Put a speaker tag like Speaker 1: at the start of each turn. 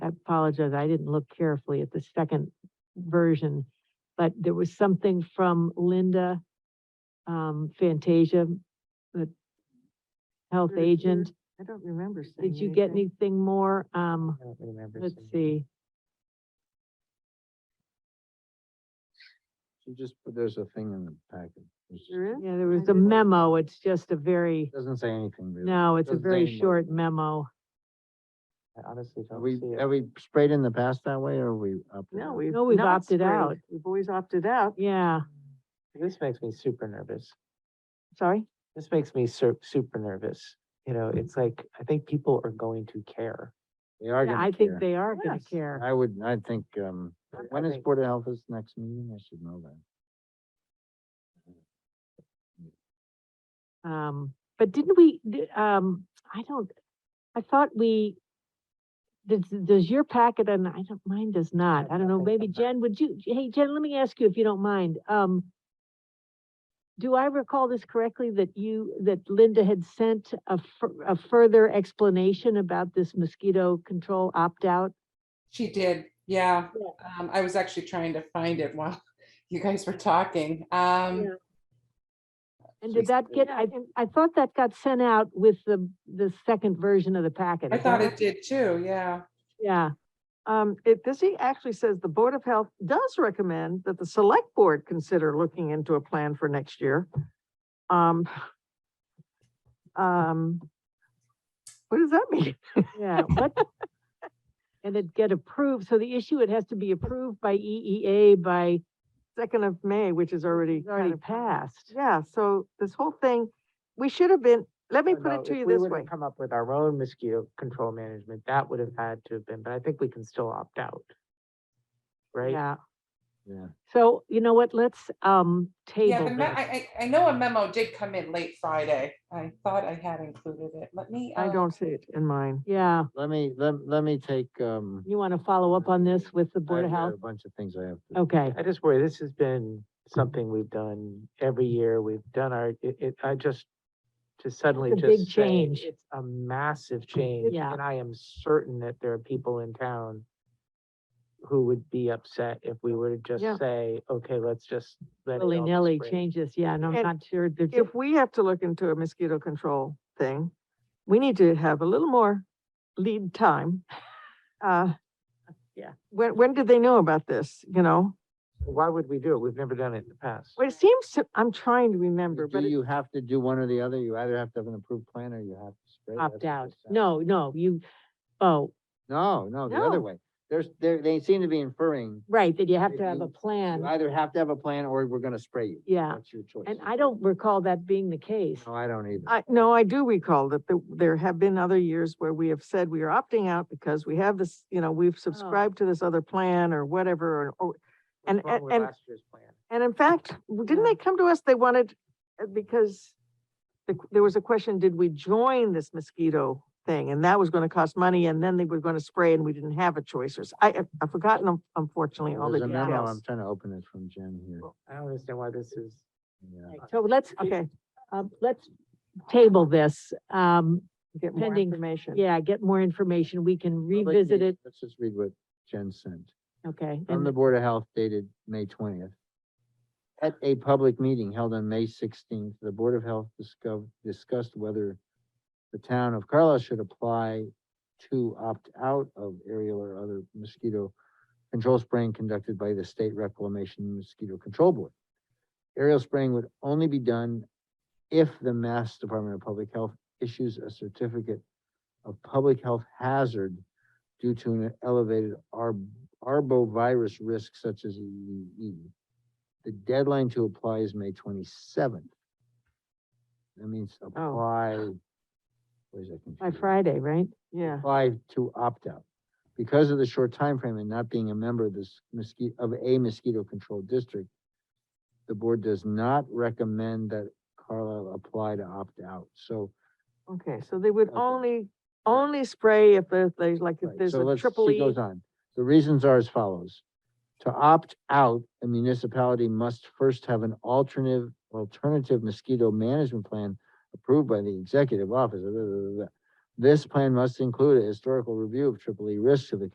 Speaker 1: apologize, I didn't look carefully at the second version, but there was something from Linda um, Fantasia, the health
Speaker 2: Sure, sure.
Speaker 1: agent.
Speaker 2: I don't remember saying.
Speaker 1: Did you get
Speaker 2: anything.
Speaker 1: anything more? Um,
Speaker 3: I don't remember.
Speaker 1: let's
Speaker 3: seeing it.
Speaker 1: see.
Speaker 3: So just, put- there's a thing in the packet. It's
Speaker 1: Mm.
Speaker 3: just-
Speaker 2: There is?
Speaker 1: Yeah, there was
Speaker 2: I
Speaker 1: a
Speaker 2: didn't-
Speaker 1: memo. It's just a very,
Speaker 3: Doesn't say anything really.
Speaker 1: no, it's a
Speaker 3: Doesn't say
Speaker 1: very
Speaker 3: anything.
Speaker 1: short memo.
Speaker 4: I honestly
Speaker 3: Are
Speaker 4: don't
Speaker 3: we,
Speaker 4: see it.
Speaker 3: have we sprayed in the past that way or are we up? to
Speaker 2: No,
Speaker 3: that?
Speaker 2: we've.
Speaker 1: No, we've
Speaker 2: not
Speaker 1: opted
Speaker 2: sprayed.
Speaker 1: out.
Speaker 2: We've always opted out.
Speaker 1: Yeah,
Speaker 4: This makes me super nervous.
Speaker 1: sorry.
Speaker 4: This makes me sur- super nervous. You know, it's like, I think people are going to care.
Speaker 3: They are
Speaker 1: Yeah,
Speaker 3: gonna
Speaker 1: I think
Speaker 3: care.
Speaker 1: they are gonna
Speaker 2: Yes.
Speaker 1: care.
Speaker 3: I would, I think, um,
Speaker 4: I- I
Speaker 3: when is
Speaker 4: think-
Speaker 3: Board of Health's next meeting? I should know that.
Speaker 1: Um, but didn't we, d- um, I don't, I thought we, does, does your packet, and I don't, mine does not, I don't know,
Speaker 4: nothing
Speaker 1: maybe
Speaker 4: from that.
Speaker 1: Jen, would you, hey, Jen, let me ask you if you don't mind, um, do I recall this correctly, that you, that Linda had sent a, fur- a further explanation about this mosquito control opt-out?
Speaker 5: She did, yeah. Um, I was actually trying to find it while you guys were talking. Um,
Speaker 1: And did that get, I, I thought that got sent out with the, the second version of the packet.
Speaker 5: I
Speaker 1: is that
Speaker 5: thought
Speaker 1: right?
Speaker 5: it did too, yeah.
Speaker 1: Yeah.
Speaker 2: Um, it, this, he actually says the Board of Health does recommend that the select board consider looking into a plan for next year. Um. Um. What does that mean?
Speaker 1: Yeah, what? And it get approved, so the issue, it has to be approved by EEA by,
Speaker 2: Second of May, which is already.
Speaker 1: it's already
Speaker 2: kind of-
Speaker 1: passed.
Speaker 2: Yeah, so this whole thing, we should have been, let me
Speaker 4: Or
Speaker 2: put
Speaker 4: Oh, no,
Speaker 2: it to
Speaker 4: if
Speaker 2: you
Speaker 4: we
Speaker 2: this
Speaker 4: would've
Speaker 2: way.
Speaker 4: Come up with our own mosquito control management, that would have had to have been, but I think we can still opt out. Right?
Speaker 1: Yeah,
Speaker 3: Yeah.
Speaker 1: so you know what, let's, um,
Speaker 5: Yeah,
Speaker 1: table
Speaker 5: the me-
Speaker 1: this.
Speaker 5: I, I, I know a memo did come in late Friday. I thought I had included it. Let me.
Speaker 2: I
Speaker 5: uh,
Speaker 2: don't see it in mine.
Speaker 1: Yeah,
Speaker 3: Let me, let, let me take, um.
Speaker 1: you want to follow up on this with the Board
Speaker 3: I-
Speaker 1: of
Speaker 3: I have
Speaker 1: Health? Oh.
Speaker 3: A bunch of things I have to.
Speaker 1: Okay,
Speaker 4: I just worry, this has been something we've done every year. We've done our, it, it, I just, to suddenly
Speaker 1: a
Speaker 4: just.
Speaker 1: big
Speaker 4: say
Speaker 1: change.
Speaker 4: It's a massive change.
Speaker 1: Yeah.
Speaker 4: And I am certain that there are people in town who would be upset if we were to
Speaker 1: Yeah.
Speaker 4: just say, okay, let's just. let it all be
Speaker 1: willy-nilly
Speaker 4: sprayed."
Speaker 1: changes, yeah, and I'm
Speaker 2: And
Speaker 1: not sure, there's,
Speaker 2: If we have to look into a mosquito control thing, we need to have a little more lead time. Uh,
Speaker 1: Yeah.
Speaker 2: When, when did they know about this, you know?
Speaker 4: Why would we do it? We've never done it in the past.
Speaker 2: Well, it seems, to- I'm trying to remember,
Speaker 3: Do
Speaker 2: but it-
Speaker 3: you have to do one or the other? You either have to have an approved plan or you have to spray. That's what
Speaker 1: opt
Speaker 3: it
Speaker 1: out.
Speaker 3: says.
Speaker 1: No, no, you, oh,
Speaker 3: No, no, the other
Speaker 2: No.
Speaker 3: way. There's, they, they seem to be inferring,
Speaker 1: right, that you have
Speaker 3: If
Speaker 1: to have a
Speaker 3: you- you
Speaker 1: plan,
Speaker 3: either have to have a plan or we're gonna spray you.
Speaker 1: yeah,
Speaker 3: That's your choice.
Speaker 1: and I don't recall that being the case.
Speaker 3: No, I don't either.
Speaker 2: I, no, I do recall that the- there have been other years where we have said we are opting out because we have this, you know, we've subscribed to this other plan or whatever, or- or, and-
Speaker 4: What's wrong
Speaker 2: and-
Speaker 4: with
Speaker 2: and-
Speaker 4: Last year's plan.
Speaker 2: And in fact, w- didn't
Speaker 1: Yeah.
Speaker 2: they come to us, they wanted, uh, because the q- there was a question, did we join this mosquito thing? And that was gonna cost money, and then they were gonna spray, and we didn't have a choice, or, s- I, I- I've forgotten un- unfortunately all the
Speaker 3: There's a memo, I'm
Speaker 2: details.
Speaker 3: trying to open it from Jen here.
Speaker 4: I don't understand why this is.
Speaker 3: Yeah.
Speaker 1: Right, So let's,
Speaker 2: Okay,
Speaker 1: um, let's table this, um,
Speaker 2: get more
Speaker 1: Pending-
Speaker 2: information.
Speaker 1: Yeah, get more information. We can
Speaker 3: Well, let-
Speaker 1: revisit it,
Speaker 3: Let's just read what Jen sent.
Speaker 1: okay?
Speaker 3: From
Speaker 1: and-
Speaker 3: the Board of Health dated May twentieth. At a public meeting held on May sixteenth, the Board of Health discussed, discussed whether the town of Carlisle should apply to opt out of aerial or other mosquito control spraying conducted by the State Reclamation Mosquito Control Board. Aerial spraying would only be done if the Mass Department of Public Health issues a certificate of public health hazard due to an elevated arb- arbovirus risk such as EEE. The deadline to apply is May twenty-seventh. That means apply. Where's that
Speaker 1: By
Speaker 3: computer?
Speaker 1: Friday, right?
Speaker 2: Yeah,
Speaker 3: apply to opt out. Because of the short time frame and not being a member of this mosquito, of a mosquito control district, the board does not recommend that Carlisle apply to opt out. So,
Speaker 2: okay, so they would
Speaker 3: Okay.
Speaker 2: only, only spray if there- there's like, if
Speaker 3: right,
Speaker 2: there's
Speaker 3: so
Speaker 2: a
Speaker 3: let's,
Speaker 2: triple
Speaker 3: she
Speaker 2: E.
Speaker 3: goes on. The reasons are as follows. To opt out, a municipality must first have an alternative, alternative mosquito management plan approved by the executive office. blah, blah, blah, blah. This plan must include a historical review of triple E risks to the